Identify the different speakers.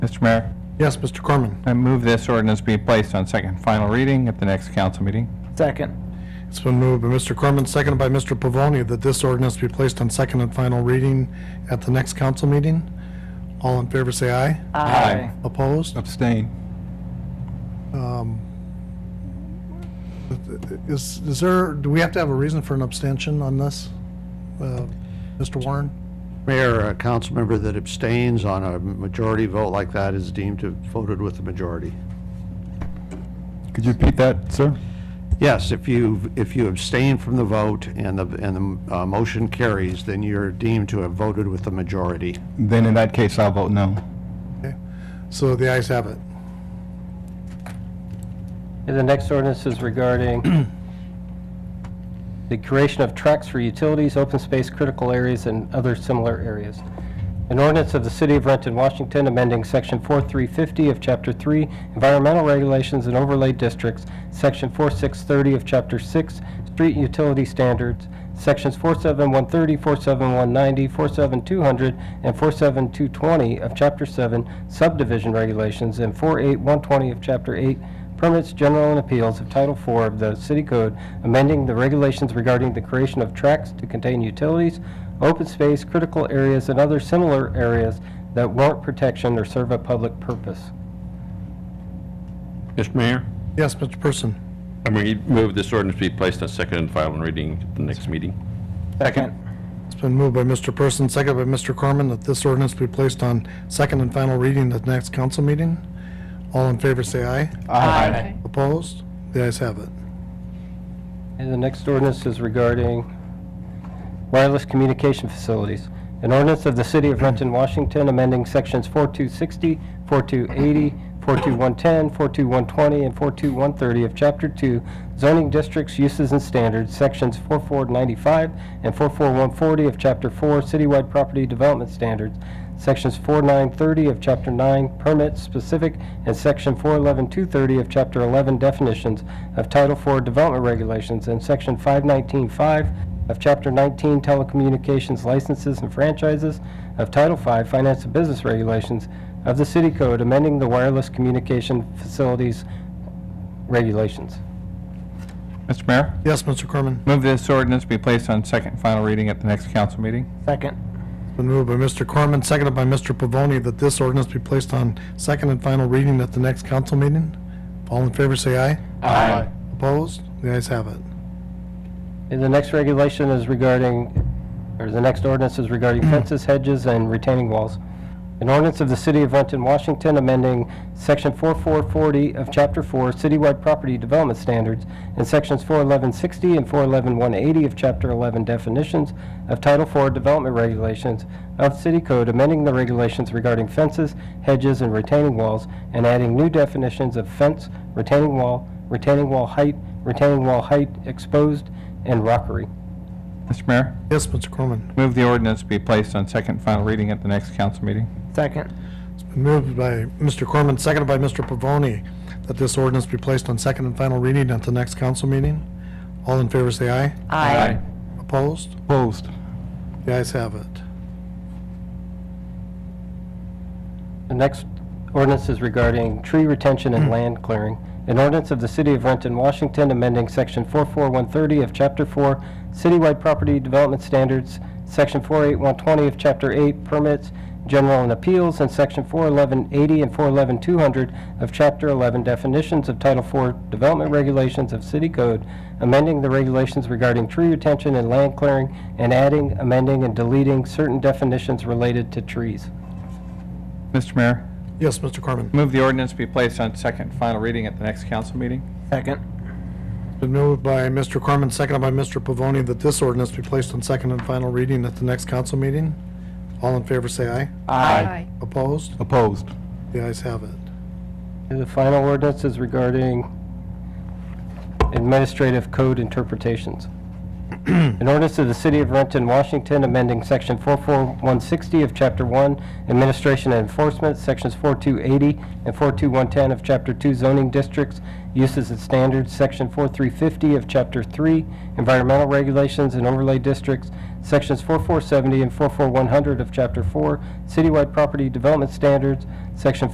Speaker 1: Mr. Mayor,
Speaker 2: Yes, Mr. Corman.
Speaker 1: I move this ordinance be placed on second and final reading at the next council meeting.
Speaker 3: Second.
Speaker 2: It's been moved by Mr. Corman, seconded by Mr. Pavoni, that this ordinance be placed on second and final reading at the next council meeting. All in favor, say aye.
Speaker 1: Aye.
Speaker 2: Opposed? Um,
Speaker 1: Abstain.
Speaker 2: Is, is there, do we have to have a reason for an abstention on this? Uh, Mr. Warren?
Speaker 4: Mayor, a council member that abstains on a majority vote like that is deemed to have voted with the majority.
Speaker 1: Could you repeat that, sir?
Speaker 4: Yes, if you, if you abstain from the vote and the, and the uh, motion carries, then you're deemed to have voted with the majority.
Speaker 1: Then in that case, I'll vote no.
Speaker 2: Okay. So the ayes have it.
Speaker 5: And the next ordinance is regarding the creation of tracks for utilities, open space, critical areas, and other similar areas. An ordinance of the City of Renton, Washington, amending Section 4350 of Chapter 3, Environmental Regulations and Overlay Districts, Section 4630 of Chapter 6, Street Utility Standards, Sections 47130, 47190, 47200, and 47220 of Chapter 7, Subdivision Regulations, and 48120 of Chapter 8, Permits, General, and Appeals of Title IV of the City Code, amending the regulations regarding the creation of tracts to contain utilities, open space, critical areas, and other similar areas that warrant protection or serve a public purpose.
Speaker 6: Mr. Mayor,
Speaker 2: Yes, Mr. Person.
Speaker 6: I move this ordinance be placed on second and final reading at the next meeting.
Speaker 3: Second.
Speaker 2: It's been moved by Mr. Person, seconded by Mr. Corman, that this ordinance be placed on second and final reading at the next council meeting. All in favor, say aye.
Speaker 1: Aye.
Speaker 2: Opposed? The ayes have it.
Speaker 5: And the next ordinance is regarding wireless communication facilities. An ordinance of the City of Renton, Washington, amending Sections 4260, 4280, 42110, 42120, and 42130 of Chapter 2 Zoning Districts, Uses, and Standards, Sections 4495 and 44140 of Chapter 4 Citywide Property Development Standards, Sections 4930 of Chapter 9 Permits Specific, and Section 411230 of Chapter 11 Definitions of Title 4 Development Regulations, and Section 5195 of Chapter 19 Telecommunications Licenses and Franchises of Title V Finance and Business Regulations of the City Code, amending the wireless communication facilities regulations.
Speaker 1: Mr. Mayor,
Speaker 2: Yes, Mr. Corman.
Speaker 1: move this ordinance be placed on second and final reading at the next council meeting.
Speaker 3: Second.
Speaker 2: It's been moved by Mr. Corman, seconded by Mr. Pavoni, that this ordinance be placed on second and final reading at the next council meeting. All in favor, say aye.
Speaker 3: Aye.
Speaker 2: Opposed? The ayes have it.
Speaker 5: And the next regulation is regarding, or the next ordinance is regarding fences, hedges, and retaining walls. An ordinance of the City of Renton, Washington, amending Section 4440 of Chapter 4 Citywide Property Development Standards and Sections 41160 and 411180 of Chapter 11 Definitions of Title 4 Development Regulations of City Code, amending the regulations regarding fences, hedges, and retaining walls, and adding new definitions of fence, retaining wall, retaining wall height, retaining wall height exposed, and rockery.
Speaker 1: Mr. Mayor,
Speaker 2: Yes, Mr. Corman.
Speaker 1: move the ordinance be placed on second and final reading at the next council meeting.
Speaker 3: Second.
Speaker 2: Moved by Mr. Corman, seconded by Mr. Pavoni, that this ordinance be placed on second and final reading at the next council meeting. All in favor, say aye.
Speaker 3: Aye.
Speaker 2: Opposed?
Speaker 1: Opposed.
Speaker 2: The ayes have it.
Speaker 5: The next ordinance is regarding tree retention and land clearing. An ordinance of the City of Renton, Washington, amending Section 44130 of Chapter 4 Citywide Property Development Standards, Section 48120 of Chapter 8 Permits, General and Appeals, and Section 41180 and 411200 of Chapter 11 Definitions of Title 4 Development Regulations of City Code, amending the regulations regarding tree retention and land clearing, and adding, amending, and deleting certain definitions related to trees.
Speaker 1: Mr. Mayor,
Speaker 2: Yes, Mr. Corman.
Speaker 1: move the ordinance be placed on second and final reading at the next council meeting.
Speaker 3: Second.
Speaker 2: Been moved by Mr. Corman, seconded by Mr. Pavoni, that this ordinance be placed on second and final reading at the next council meeting. All in favor, say aye.
Speaker 3: Aye.
Speaker 2: Opposed?
Speaker 1: Opposed.
Speaker 2: The ayes have it.
Speaker 5: The final ordinance is regarding administrative code interpretations. An ordinance of the City of Renton, Washington, amending Section 44160 of Chapter 1, Administration and Enforcement, Sections 4280 and 42110 of Chapter 2 Zoning Districts, Uses and Standards, Section 4350 of Chapter 3 Environmental Regulations and Overlay Districts, Sections 4470 and 44100 of Chapter 4 Citywide Property Development Standards, Section